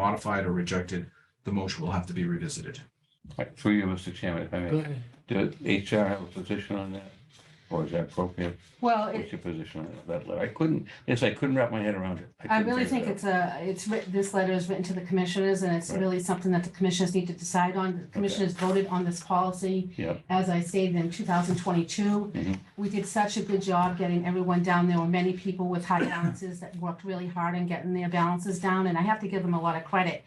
modified or rejected, the motion will have to be revisited. Right, through you, Mr. Chairman, if I Go may, ahead. do HR have a position on that? Or is that appropriate? Well, it- What's your position on that letter? I couldn't, yes, I couldn't wrap my head around it. I couldn't really figure it think out. it's a, it's written, this letter is written to the commissioners and it's Right. really something that the commissioners need to decide on. The commissioners voted on this policy. Yep. As I stated in two thousand twenty-two, Mhm. we did such a good job getting everyone down. There were many people with high balances that worked really hard in getting their balances down and I have to give them a lot of credit.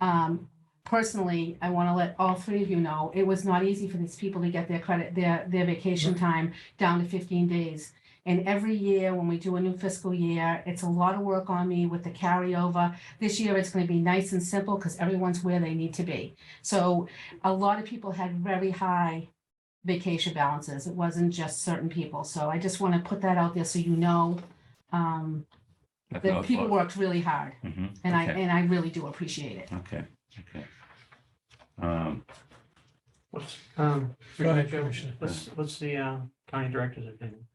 Um, personally, I want to let all three of you know, it was not easy for these people to get their credit, their, their vacation time down to fifteen days. And every year, when we do a new fiscal year, it's a lot of work on me with the carryover. This year, it's going to be nice and simple because everyone's where they need to be. So a lot of people had very high vacation balances. It wasn't just certain people. So I just want to put that out there so you know um, That's how that it people was. worked really hard, Mhm, and I okay, and I really do appreciate it. Okay, okay. Um, What's, Um, Go Go ahead, ahead, Commissioner. what's, what's the uh, county director's opinion?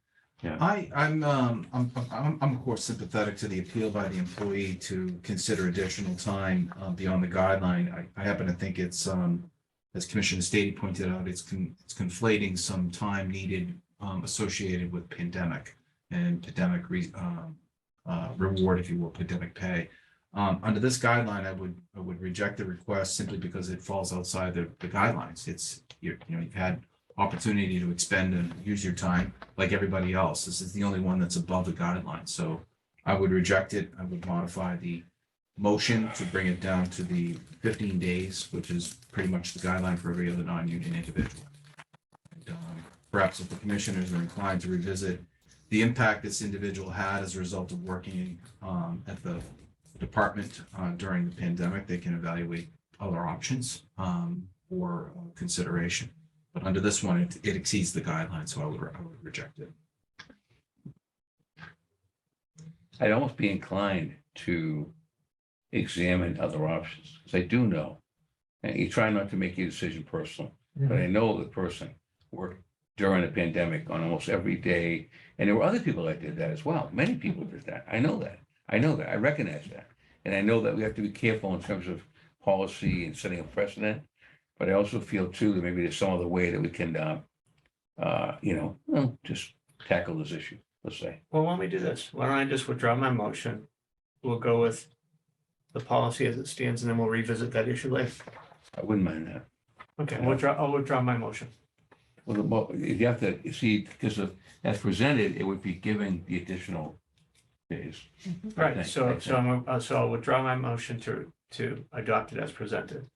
I, I'm, um, I'm, I'm, I'm of course sympathetic to the appeal by the employee to consider additional time uh, beyond the guideline. I, I happen to think it's, um, as Commissioner Stady pointed out, it's con- it's conflating some time needed, um, associated with pandemic and pandemic re, um, uh, reward, if you will, pandemic pay. Um, under this guideline, I would, I would reject the request simply because it falls outside the, the guidelines. It's, you're, you know, you've had opportunity to expend and use your time like everybody else. This is the only one that's above the guideline, so I would reject it. I would modify the motion to bring it down to the fifteen days, which is pretty much the guideline for every other non-union individual. And, um, Perhaps if the commissioners are inclined to revisit the impact this individual had as a result of working um, at the department uh, during the pandemic, they can evaluate other options um, for consideration. But under this one, it, it exceeds the guideline, so I would, I would reject it. I'd almost be inclined to examine other options, because I do know, and you try not to make your decision personal, but I know the person worked during the pandemic on almost every day. And there were other people that did that as well. Many people did that. I know that. I know that. I recognize that. And I know that we have to be careful in terms of policy and setting a precedent. But I also feel too that maybe there's some other way that we can, uh, uh, you know, well, just tackle this issue, let's say. Well, why don't we do this? Why don't I just withdraw my motion? We'll go with the policy as it stands and then we'll revisit that issue later. I wouldn't mind that. Okay, we'll draw, I'll withdraw my motion. Well, the mo- if you have to, you see, because of, as presented, it would be giving the additional days. Okay, Right, so, okay. so I'm, uh, so I'll withdraw my motion to, to adopt it as presented.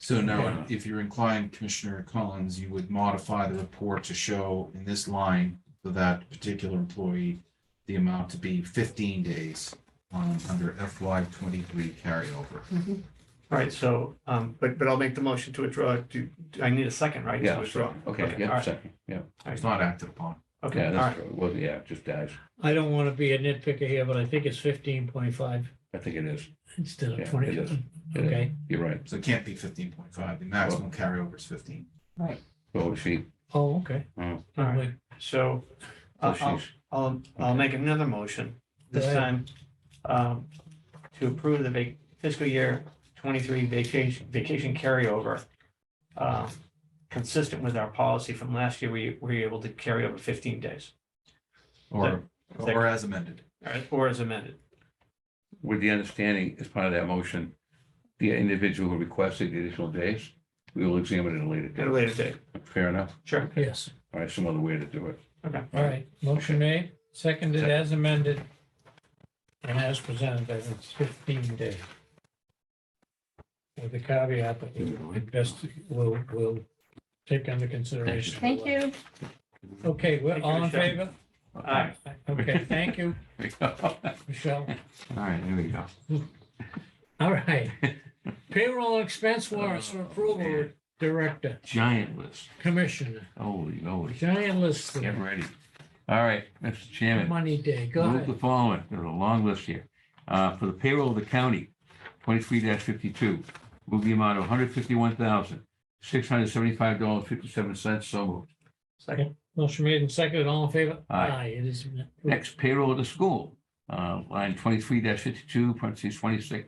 So now, Yeah. if you're inclined, Commissioner Collins, you would modify the report to show in this line for that particular employee, the amount to be fifteen days um, under FY twenty-three carryover. Mhm. All right, so, um, but, but I'll make the motion to withdraw. Do, do I need a second, right? to Yeah, withdraw? sure. Okay, All yeah, right, second, yeah. It's not acted upon. okay, Yeah, all right. that's true. Well, yeah, it just dies. I don't want to be a nitpicker here, but I think it's fifteen point five I think it is. instead Yeah, of it twenty. is. It is. Okay, You're right. So it can't be fifteen point five. The maximum carryover is fifteen. Right. So she, oh, okay. Mm. All right. Wait, So so uh, I'll, she's, I'll, I'll Okay. make another motion this Go ahead. time um, to approve the vac- fiscal year twenty-three vacation, vacation carryover. uh, Consistent with our policy from last year, we we were able to carry over fifteen days, Or, Second. or as amended. all right, or as amended. with the understanding as part of that motion, the individual who requested the additional days, we will examine it at a later At a date. later date, Fair enough. sure, Yes, All right, some other way to do it. okay. all right. Motion made, seconded Second. as amended. And as presented, that it's fifteen day. With the caveat that we best will, will take under consideration. Thank you. Okay, we're Thank you, all in Michelle. favor? Aye. Okay, thank you, Here we go. All Michelle. right, here we go. All right. Payroll expense warrants for approval, Director, Giant list. Commissioner, Holy, holy. giant list, Get ready. All right, Mr. Chairman. money day, go Move the ahead. following, there's a long list here. Uh, For the payroll of the county, twenty-three fifty-two, move the amount of one hundred fifty-one thousand, six hundred seventy-five dollars, fifty-seven cents, so moved. Second, Motion made and seconded, all in favor? Aye. It is. approved. Next, payroll of the school, uh, line twenty-three fifty-two, parentheses twenty-six,